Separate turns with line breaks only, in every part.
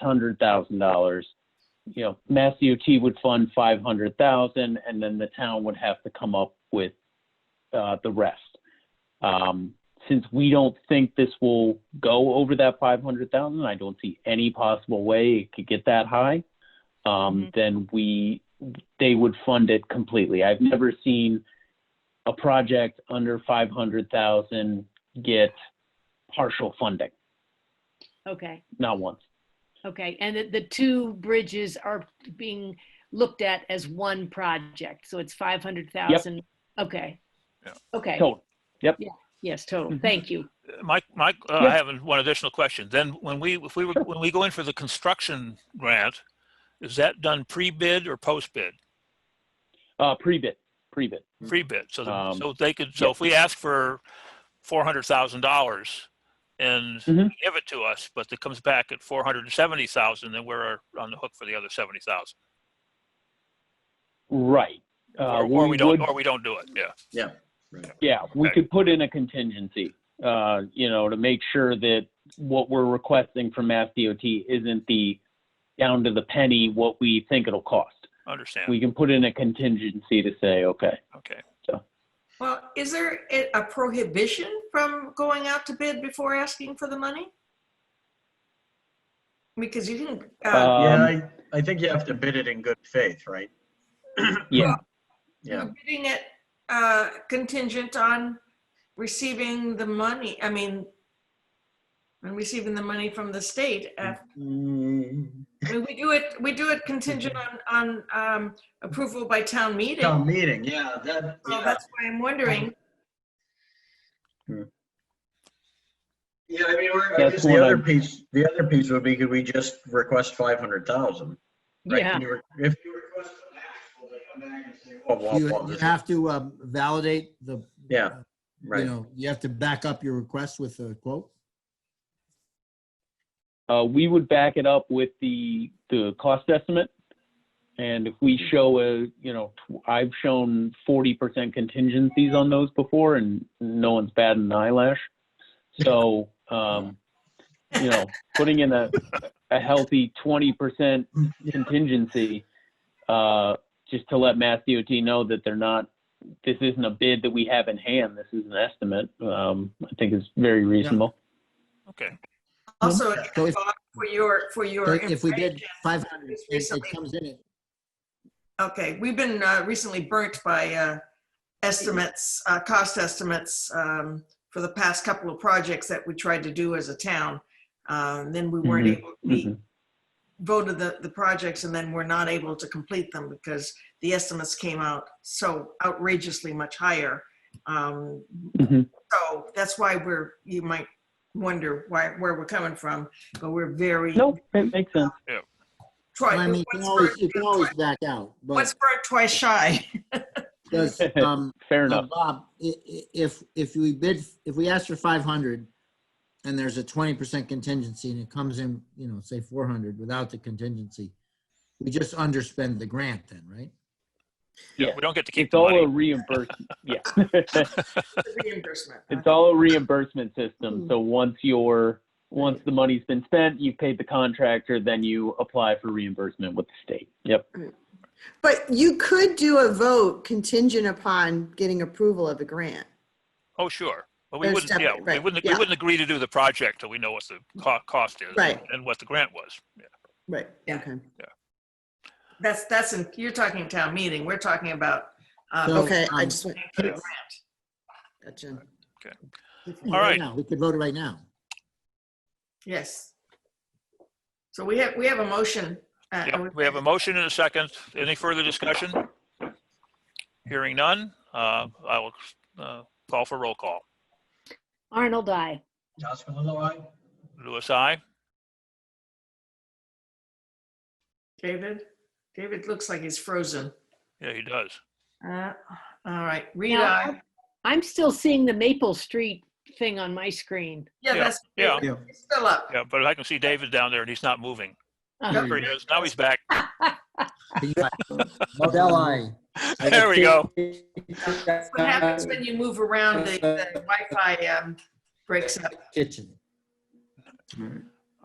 hundred thousand dollars. You know, Mass DOT would fund five hundred thousand, and then the town would have to come up with uh, the rest. Um, since we don't think this will go over that five hundred thousand, I don't see any possible way it could get that high. Um,
Mhm.
then we they would fund it completely. I've never seen a project under five hundred thousand get partial funding,
Okay,
not once.
okay. And the, the two bridges are being looked at as one project, so it's 500,000? Okay.
Yeah.
Okay,
Total.
yes, total.
Mhm.
Thank you.
Mike, Mike, uh,
Yeah.
I have an- one additional question. Then when we, if we were, when we go in for the construction grant, is that done pre-bid or post-bid?
Mm-hmm. Uh, pre-bid, pre-bid.
Pre-bid, so, the-
Um,
so they could, so
yeah.
if we ask for four hundred thousand dollars and
Mhm.
give it to us, but it comes back at four hundred and seventy thousand, then we're on the hook for the other seventy thousand.
Right. Uh,
Or, or we don't,
would-
or we don't do it, yeah.
Yeah, we
Okay.
could put in a contingency, uh, you know, to make sure that what we're requesting from Mass DOT isn't the down to the penny what we think it'll cost.
Understand,
We can put in a contingency to say, okay,
okay.
Well, is there a a prohibition from going out to bid before asking for the money? Because you can, uh,
Yeah,
um,
I, I think you have to bid it in good faith, right?
yeah,
Yeah,
you're bidding it uh, contingent on receiving the money, I mean, and receiving the money from the state. uh,
Mm,
I mean, we do it, we do it contingent on, on um, approval by town meeting.
Town meeting, yeah, that, uh,
So
yeah.
that's why I'm wondering,
Yeah, I mean, or- I
That's
guess the
what
other
I'm-
piece, the other piece would be, could we just request five hundred thousand?
Yeah,
If you request the max, will they come back and say, oh, well,
You
well,
you
this is-
have to um, validate the, uh,
Yeah,
you
right.
know, you have to back up your request with a quote.
uh, we would back it up with the, the cost estimate. And if we show a, you know, tw- I've shown forty percent contingencies on those before and no one's batted an eyelash. So, um, you know, putting in a, a healthy twenty percent contingency, uh, just to let Mass DOT know that they're not, this isn't a bid that we have in hand, this is an estimate, um, I think is very reasonable.
Okay,
also,
So if-
for your, for
So
your.
if we did
information,
five hundred,
Just
it
recently-
comes in at
Okay, we've been uh, recently burnt by uh, estimates, uh, cost estimates um, for the past couple of projects that we tried to do as a town. Uh, and Then we weren't
Mhm,
able,
mhm.
we voted the, the projects and then we're not able to complete them because the estimates came out so outrageously much higher. Um,
Mhm.
So that's why we're, you might wonder why, where we're coming from, but we're very.
Nope, it makes sense.
Try-
I mean, you can
once
always,
burnt-
you can always back out,
Once
but
burnt, twice shy.
does, um,
Fair
uh,
enough.
Bob, i- i- if, if we bid, if we ask for five hundred and there's a twenty percent contingency and it comes in, you know, say four hundred without the contingency, we just underspend the grant then, right?
yeah,
Yeah.
we don't get to keep
It's
the
all a
money.
reimbursement, yeah.
The Reimbursement.
It's all a reimbursement system, so once your, once the money's been spent, you've paid the contractor, then you apply for reimbursement with the state. Yep,
But you could do a vote contingent upon getting approval of a grant.
Oh, sure. But we
They're
wouldn't, yeah,
separate,
we
right,
wouldn't, we
yeah.
wouldn't agree to do the project till we know what the co- cost is
Right.
and what the grant was. Yeah.
Right.
Yeah.
Okay.
That's, that's, in- you're talking town meeting, we're talking about. uh,
So,
Okay, I
um,
just went.
Yeah.
Gotcha.
All
right.
now, We could vote it right now.
Yes. So we have, we have a motion. uh,
Yeah,
and we-
we have a motion and a second. Any further discussion? Hearing none, uh, I will, uh, call for roll call.
Arnold, I.
Jocelyn, aye?
Louis, I.
David, David looks like he's frozen.
Yeah, he does.
Uh, All right, read
Now,
I.
I'm- I'm still seeing the Maple Street thing on my screen.
Yeah,
Yeah,
that's.
yeah.
Yeah.
it's Still up.
Yeah, but I can see David down there and he's not moving. There he is. Now he's back.
Model I.
There we go.
That's What happens when you move around, the the Wi-Fi um, breaks up.
Kitchen.
All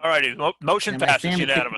All righty, mo- motion
And my
passes
family-
unanimously.